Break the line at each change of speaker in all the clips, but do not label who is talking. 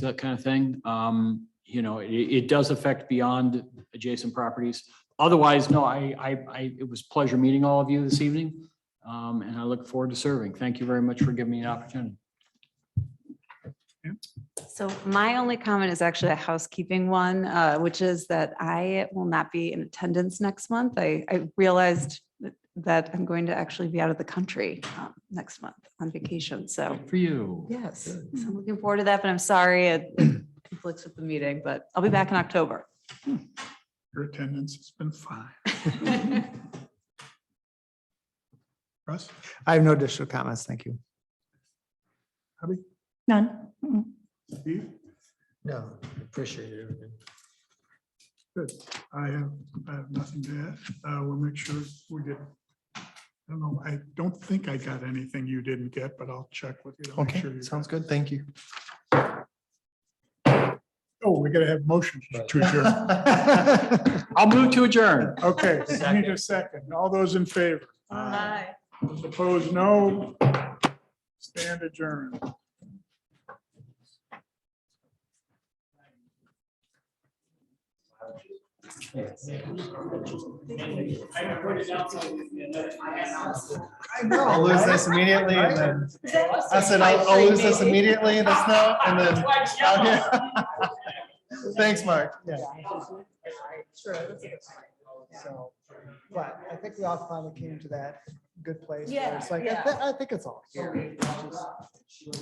that kind of thing. Um, you know, it, it does affect beyond adjacent properties. Otherwise, no, I, I, I, it was a pleasure meeting all of you this evening. Um, and I look forward to serving. Thank you very much for giving me an opportunity.
So my only comment is actually a housekeeping one, uh, which is that I will not be in attendance next month. I, I realized that I'm going to actually be out of the country um, next month on vacation.
Oh.
So
Good For you.
yes, so
Good.
I'm looking forward to that, but I'm sorry it it conflicts with the meeting, but I'll be back in October.
Your attendance has been fine. Russ,
I have no additional comments. Thank you.
None. Mm-mm.
Steve,
No, appreciate everything.
I have, I have nothing to add. Uh, we'll make sure we get. I don't know, I don't think I got anything you didn't get, but I'll check with you. to make
Okay,
sure you got
sounds good. Thank you.
it. Oh, we gotta have motions to adjourn.
I'll move to adjourn.
Okay, I need a second. All those in favor?
Bye.
Those Opposed, no. Stand adjourned.
I'll lose this immediately and then, I said, I'll, I'll lose this immediately in the snow and then. out here. Thanks, Mark. Yeah. So, but I think we all finally came to that good place. where It's like, I thi- I think it's all here.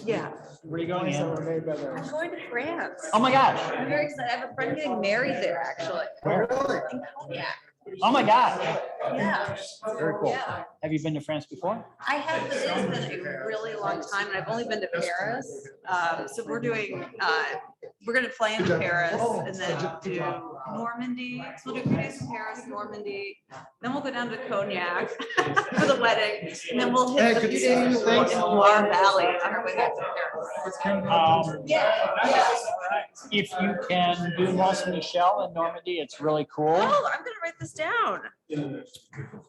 Yeah.
Where are you going,
So
Ann?
we're made better.
going to France.
Oh my gosh.
I'm very excited. I have a friend getting married there, actually. In Cognac.
Oh my gosh.
Yeah.
Very cool.
Yeah.
Have you been to France before?
I have, but it has been a really long time and I've only been to Paris. Um, so we're doing, uh, we're gonna play in Paris
Oh,
and then do Normandy. So we'll do Paris, Paris, Normandy. Then we'll go down to Cognac for the wedding. And then we'll
Hey,
hit a few
good to see
days
you.
in
Thanks.
Loire Valley on our way back to Paris. Yeah. yeah.
Um, If you can do Mont Michel in Normandy, it's really cool.
Oh, I'm gonna write this down.
Um,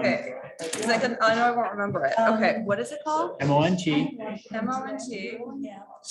Okay,
um,
because I can, I know I won't remember it. Okay, what is it called?
M O N T.
M O N T.